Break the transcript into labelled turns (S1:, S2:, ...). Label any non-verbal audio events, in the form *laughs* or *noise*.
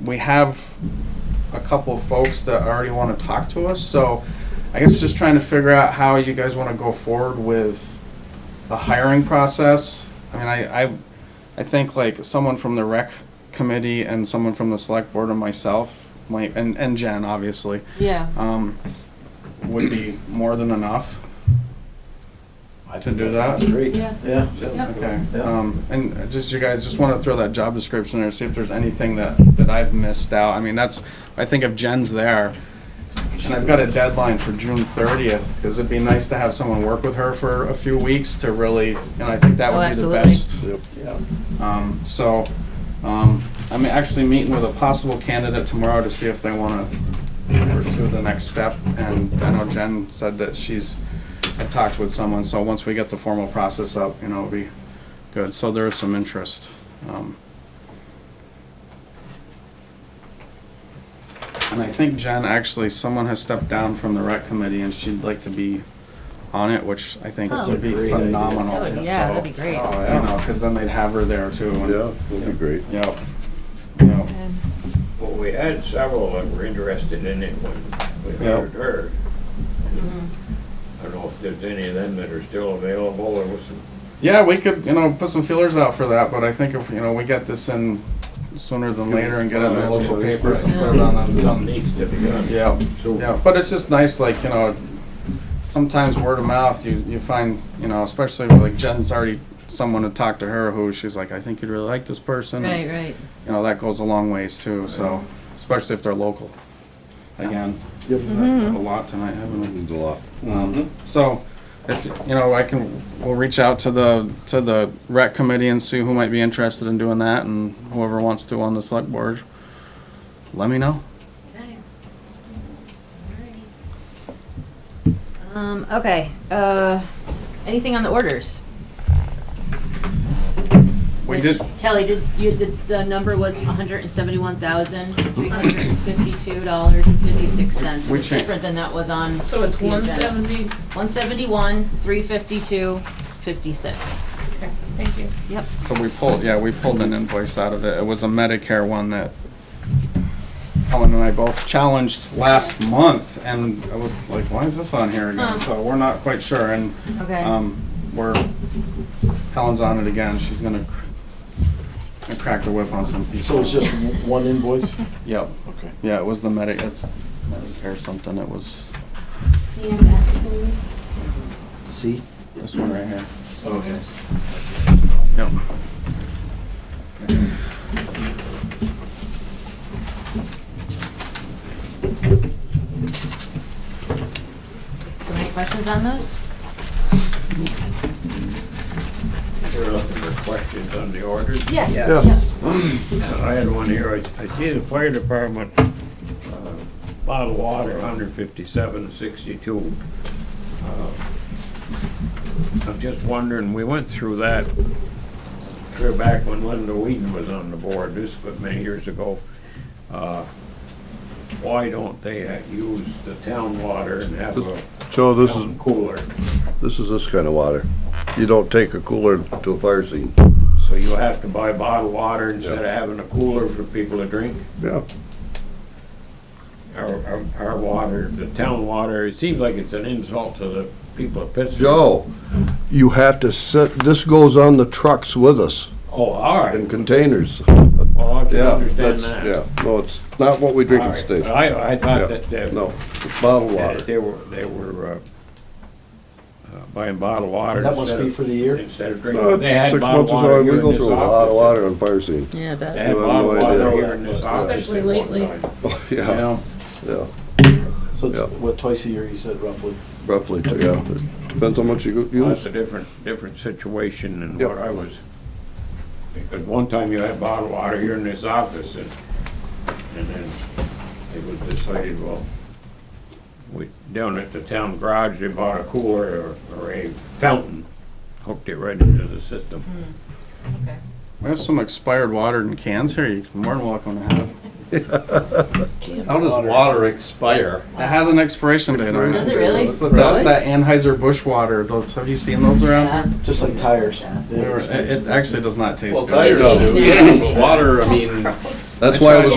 S1: we have a couple of folks that already want to talk to us, so I guess just trying to figure out how you guys want to go forward with the hiring process. I mean, I, I, I think like someone from the rec committee and someone from the select board and myself, might and, and Jen, obviously,
S2: Yeah,
S1: um, would be more than enough.
S3: I
S1: To do that?
S3: sounds Great,
S2: Yeah.
S3: yeah.
S2: Yep.
S1: Okay,
S3: Yeah.
S1: um, and just you guys, just wanna throw that job description there, see if there's anything that, that I've missed out. I mean, that's, I think if Jen's there, and I've got a deadline for June thirtieth, cause it'd be nice to have someone work with her for a few weeks to really, and I think that
S2: Oh,
S1: would be the
S2: absolutely.
S1: best.
S3: Yeah.
S1: Um, so, um, I'm actually meeting with a possible candidate tomorrow to see if they wanna pursue the next step. And I know Jen said that she's, I talked with someone, so once we get the formal process up, you know, it'll be good. So there is some interest. Um, And I think Jen, actually, someone has stepped down from the rec committee and she'd like to be on it, which I think
S2: That's
S1: would
S3: a
S1: be
S3: great idea.
S1: phenomenal.
S2: That would- Oh, yeah, that'd be
S1: So,
S2: great.
S1: uh, You know, cause then they'd have her there too. and-
S4: Yeah, that'd be great.
S1: Yep. Yep.
S2: and
S5: Well, we had several that were interested in it when we
S1: Yeah.
S5: hired her. I don't know if there's any of them that are still available or was.
S1: Yeah, we could, you know, put some feelers out for that, but I think if, you know, we get this in sooner than later and get it in the local papers and put it on the,
S5: Some
S1: on the-
S5: needs to be done.
S1: yeah,
S5: So-
S1: yeah, but it's just nice, like, you know, sometimes word of mouth, you, you find, you know, especially with, like Jen's already someone to talk to her who she's like, I think you'd really like this person. and,
S2: right, right.
S1: You know, that goes a long ways too, so, especially if they're local. Again,
S4: Yep.
S1: a lot tonight, haven't we?
S4: Means Mm-hmm. a lot.
S1: Um, So, if, you know, I can, we'll reach out to the, to the rec committee and see who might be interested in doing that, and whoever wants to on the select board, let me know.
S2: Um, okay, uh, anything on the orders?
S1: We
S2: Which-
S1: did,
S2: Kelly, did you, the, the number was hundred and seventy-one thousand, three hundred and fifty-two dollars and fifty-six cents.
S1: We changed-
S2: Different than that was on.
S6: So it's
S2: the
S6: one
S2: agenda.
S6: seventy?
S2: 171, 352, 56.
S6: Okay, thank you.
S2: Yep.
S1: so we pulled, yeah, we pulled an invoice out of it. It was a Medicare one that Ellen and I both challenged last month, and I was like, why is this on here again?
S2: Huh.
S1: So we're not quite sure, and
S2: Okay.
S1: Um, we're, Helen's on it again, she's gonna, cr- gonna crack the whip on some pieces.
S3: So it's just
S4: *laughs*
S3: one invoice?
S1: Yep,
S3: Okay.
S1: yeah, it was the medic, it's Medicare something, it was
S7: CMS, maybe?
S3: See?
S1: this one right here.
S5: Oh,
S3: Okay.
S1: Yep.
S2: So any questions on those?
S5: There are looking for questions on the orders.
S2: Yes.
S3: Yeah.
S5: I had one here, I, I see the fire department, uh, bottled water, hundred fifty-seven sixty-two. Uh, I'm just wondering, we went through that, clear back when Linda Whedon was on the board, this was many years ago. Uh, Why don't they uh, use the town water and have a
S4: So this is,
S5: town cooler?
S4: this is this kind of water. You don't take a cooler to a fire scene.
S5: So you have to buy bottled water instead of having a cooler for people to drink?
S4: Yeah.
S5: our, our- our water, the town water, it seems like it's an insult to the people of Pittsburgh.
S4: Joe, you have to set, this goes on the trucks with us
S5: Oh, all
S4: in
S5: right,
S4: containers.
S5: well, I can
S4: Yeah,
S5: understand
S4: that's,
S5: that.
S4: yeah. No, it's not what we drink
S5: All
S4: at the
S5: right, but
S4: station.
S5: I, I
S4: Yeah.
S5: thought that, uh,
S4: No, it's bottled
S5: that
S4: water.
S5: they were, they were, uh, uh, buying bottled water.
S3: That must
S5: instead
S3: be
S5: of-
S3: for the year?
S5: Instead of
S4: No,
S5: drinking,
S4: it's
S5: they had
S4: Six
S5: bottled
S4: months is all,
S5: water
S4: we
S5: here in
S4: go
S5: this
S4: through a lot of
S5: office.
S4: water on fire scene. *laughs*
S2: Yeah,
S5: They
S2: but
S5: had
S4: You have
S5: bottled
S4: no
S5: water
S4: idea.
S5: here in this office.
S6: Especially
S5: at one
S6: lately.
S5: time.
S4: Oh,
S1: You
S4: Yeah,
S1: know,
S4: yeah,
S3: So it's,
S4: Yeah.
S3: what, twice a year, you said roughly?
S4: roughly, yeah. Depends how much you go-
S5: Well,
S4: use.
S5: That's a different, different situation than
S4: Yep.
S5: what I was. Because one time you had bottled water here in this office and, and then it was decided, well, we, down at the town garage, they bought a cooler or, or a fountain, hooked it right into the system.
S1: we have some expired water in cans here, you're more than welcome to have.
S8: *laughs* How does water expire?
S1: It has an expiration date on it.
S2: Does it really?
S1: It's the- That, that Anheuser-Busch water, those, have you seen those around?
S3: Just like tires.
S1: They were- It, it actually does not taste good.
S8: Well, tires do,
S6: Yeah.
S8: but water, I mean.
S4: That's why it was